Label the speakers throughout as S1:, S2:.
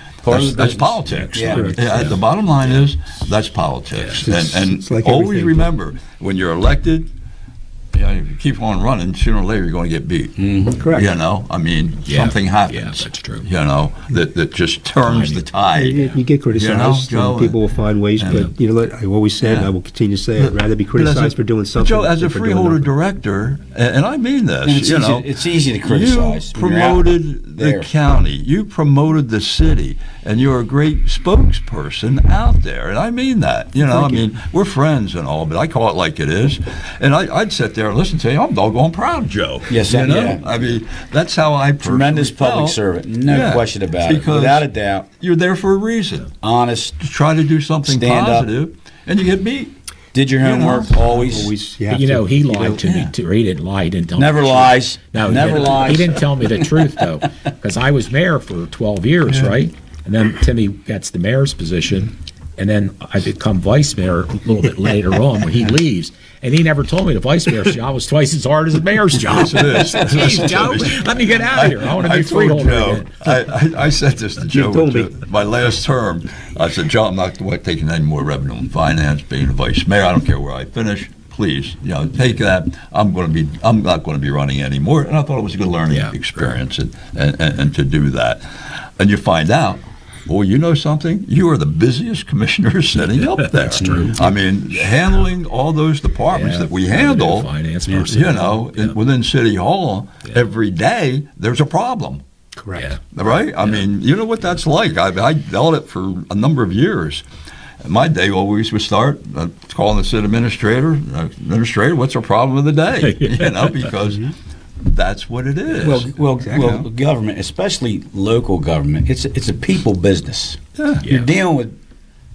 S1: part
S2: That's,
S1: of the business.
S2: that's politics.
S1: Yeah.
S2: Yeah. The bottom line is that's politics.
S1: Yeah.
S2: And,
S1: It's-
S2: and
S3: it's like
S2: always
S3: everything.
S2: remember when you're elected, you know, if you keep on running, sooner or later you're going to get beat.
S3: Mm-hmm. Correct.
S2: You know, I mean,
S1: Yeah.
S2: something happens.
S1: Yeah, that's true.
S2: You know, that, that just turns the tide.
S3: You, you get criticized,
S2: You know, Joe,
S3: and people will find ways.
S2: yeah.
S3: But you know, what I always said, and I will continue to say, I'd rather be
S2: But as a-
S3: criticized for doing
S2: but
S3: something.
S2: Joe, as a
S3: than for doing
S2: freeholder
S3: nothing.
S2: director, a- and I mean this,
S4: And it's
S2: you
S4: easy-
S2: know,
S4: it's easy to criticize
S2: You
S4: when you're out
S2: promoted the
S4: there.
S2: county, you promoted the city, and you're a great spokesperson out there, and I mean that. You know, I
S3: Thank you.
S2: mean, we're friends and all, but I call it like it is, and I, I'd sit there and listen to you. I'm doggone proud, of Joe.
S4: Yes,
S2: you
S4: I-
S2: know,
S4: yeah.
S2: I mean, that's how I personally
S4: Tremendous public
S2: felt.
S4: servant, no
S2: Yeah,
S4: question about it.
S2: because
S4: Without a doubt,
S2: You're there for a reason.
S4: honest,
S2: To try to do something
S4: Stand up.
S2: positive, and you get beat.
S4: did your
S2: You know,
S4: homework always.
S3: always, you,
S5: But
S3: have
S5: you
S3: to-
S5: know, he
S3: you
S5: lied to
S2: yeah.
S5: me too. He didn't lie. He didn't tell
S4: Never
S5: me the truth.
S4: lies.
S5: No, he
S4: Never
S5: didn't.
S4: lies.
S5: He didn't tell me the truth though, because I was mayor for 12 years, right? And then Timmy gets the mayor's position, and then I become vice mayor a little bit later on when he leaves. And he never told me the vice mayor's job was twice as hard as the mayor's job.
S2: Yes, it is.
S5: Jeez, Joe, let me get out of here. I want to be
S2: I
S5: a
S2: told
S5: freeholder
S2: Joe.
S5: again.
S2: I, I, I said this to Joe
S3: told
S2: too. my last term. I said, Joe, I'm not taking any more revenue in finance, being a vice mayor. I don't care where I finish. Please, you know, take that. I'm going to be. I'm not going to be running anymore. And I thought it was a good learning
S5: Yeah.
S2: experience, and, and, and, and to do that, and you find out. Well, you know something? You are the busiest commissioner setting up there. That's true. I mean, handling all those departments
S5: Yeah,
S2: that we
S5: revenue,
S2: handle,
S5: finance,
S2: you
S5: personnel.
S2: know, in, within City Hall, every day there's a problem.
S3: correct.
S5: Yeah.
S2: Right? I mean, you know what that's like. I, I dealt it for a number of years. My day always would start uh, calling the city administrator. uh, Administrator, what's our problem of the day? You know, because that's what it is.
S4: Well, well,
S3: Exactly.
S4: well, government, especially local government, it's a, it's a people business.
S2: Yeah.
S4: You're dealing with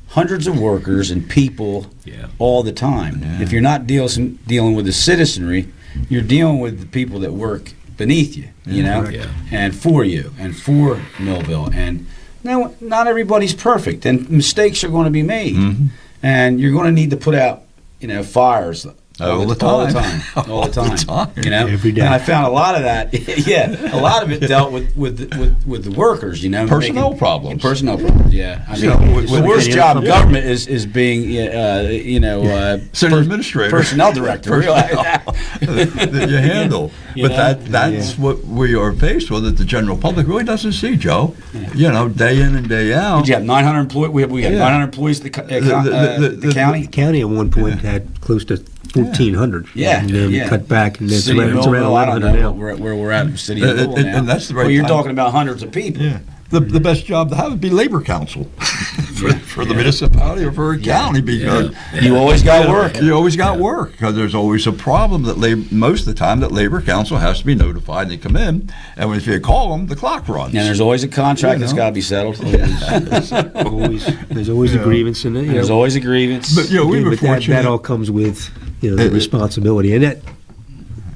S4: hundreds of workers and people
S5: Yeah.
S4: all the time. If you're not dealing dealing with the citizenry, you're dealing with the people that work beneath you, you know,
S5: correct.
S4: and for you and for Millville. And now, not everybody's perfect, and mistakes are going to be made,
S2: Mm-hmm.
S4: and you're going to need to put out, you know, fires.
S2: All the
S4: all the
S2: time.
S4: time, all the time,
S2: time.
S4: you know.
S3: Every day.
S4: And I found a lot of that. yeah, a lot of it dealt with with with, with the workers, you know,
S2: Personnel
S4: making-
S2: problems.
S4: personnel problems. Yeah, I mean,
S2: So, with-
S4: the
S2: with-
S4: worst job in government is is being uh, you know uh,
S2: City administrator.
S4: personnel director. Realize that.
S2: that you handle.
S4: You
S2: but
S4: know?
S2: that that's what we are faced with that the general public really doesn't see, Joe. You know, day in and day out.
S4: You have 900 employees. We have, we have
S2: Yeah.
S4: 900 employees. The, co- uh,
S2: The-
S4: co-
S2: the-
S4: uh,
S2: the-
S4: the,
S2: the-
S4: county.
S3: The county at one point had close to fourteen hundred.
S4: Yeah,
S3: and then
S4: yeah.
S3: cut back, and it's
S4: City
S3: around, it's
S4: of
S3: around
S4: Millville, I don't
S3: eleven
S4: know
S3: hundred now.
S4: where, where we're at. in City
S2: And-
S4: of Millville
S2: and-
S4: now.
S2: and that's the right
S4: Well, you're
S2: time.
S4: talking about hundreds of people.
S2: Yeah. The, the best job to have would be labor council for, for the municipality or for a county because
S4: You always got work.
S2: You always got work because there's always a problem that lab, most of the time that labor council has to be notified and they come in, and if you call them, the clock runs.
S4: And there's always a contract that's
S2: You know.
S4: got to be settled.
S3: Always, there's always a grievance in it. You
S4: There's
S3: know.
S4: always a grievance.
S2: but you know, we
S3: Again,
S2: were
S3: but that,
S2: fortunate.
S3: that all comes with you know,
S2: It-
S3: the
S2: it-
S3: responsibility, and that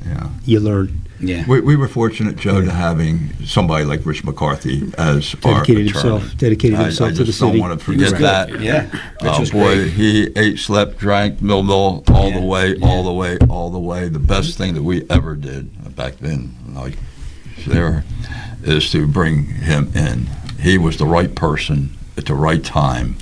S2: Yeah.
S3: you learn.
S4: yeah.
S2: we, we were fortunate, Joe, to having somebody like Rich McCarthy as our
S3: Dedicated
S2: attorney.
S3: himself- dedicated
S2: I-
S3: himself
S2: I
S3: to the
S2: just
S3: city.
S2: Don't want to forget
S3: Right.
S2: that.
S4: Yeah. Which
S2: Oh
S4: was
S2: boy,
S4: great.
S2: he ate, slept, drank, mill mill all the
S4: Yeah.
S2: way, all the way, all the way. The best thing that we ever did back then, like there, is to bring him in. He was the right person at the right time.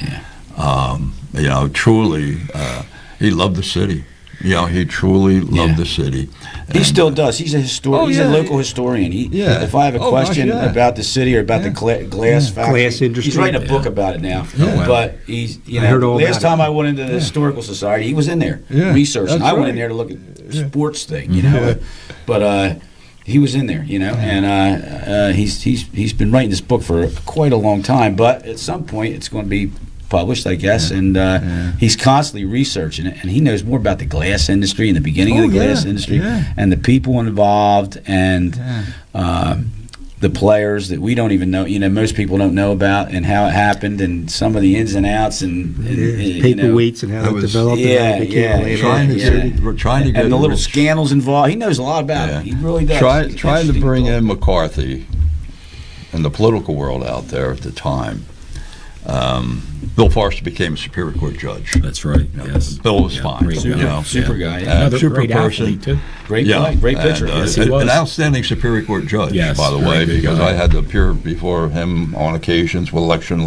S2: Um, you know, truly, uh, he loved the city. You know, he truly loved
S4: Yeah.
S2: the city.
S4: He
S2: And,
S4: still does. He's a historian.
S2: Oh,
S4: he's
S2: yeah.
S4: a local historian. He,
S2: Yeah.
S4: If I have a
S2: Oh, gosh,
S4: question
S2: yeah.
S4: about the city or about the gla- glass factory,
S3: Glass industry.
S4: he's writing a book about it now.
S2: Yeah. Oh, wow.
S4: But he's, you
S3: I
S4: know,
S3: heard all
S4: last
S3: about it.
S4: time I went into the historical society, he was in there
S2: Yeah,
S4: researching.
S2: that's
S4: I went
S2: right.
S4: in there to look at sports thing, you know. But uh, he was in there, you know, and uh, uh, he's he's he's been writing this book for quite a long time. But at some point, it's going to be published, I guess. And uh, he's constantly researching it, and he knows more about the glass industry and the beginning
S2: Oh,
S4: of the glass
S2: yeah,
S4: industry
S2: yeah.
S4: and the people involved and um, the players that we don't even know. You know, most people don't know about and how it happened and some of the ins and outs and, and,
S3: Yeah,
S4: you know,
S3: paperweights and how
S2: that
S3: it
S2: was-
S3: developed and how
S4: Yeah,
S3: it became
S4: yeah,
S3: a
S4: yeah,
S3: land
S2: trying to
S3: owner.
S4: yeah.
S2: get, trying to get
S4: and the little
S2: Rich-
S4: scandals involved. He knows a lot about it. He really does.
S2: Try,
S4: He's an
S2: trying to
S4: interesting
S2: bring
S4: fellow.
S2: in McCarthy and the political world out there at the time. Um, Bill Forrester became a Superior Court judge.
S1: That's right.
S2: You know,
S1: Yes.
S2: Bill was fine.
S1: great
S2: you
S1: guy.
S2: know.
S4: super guy, yeah.
S2: Uh,
S5: Another
S2: super
S5: great
S2: person.
S5: athlete too.
S4: great play,
S2: Yeah,
S4: great pitcher.
S2: And, uh,
S5: Yes, he
S2: an-
S5: was.
S2: An outstanding Superior Court judge,
S5: Yes,
S2: by the
S5: very
S2: way,
S5: good
S2: because
S5: guy.
S2: I had to appear before him on occasions with election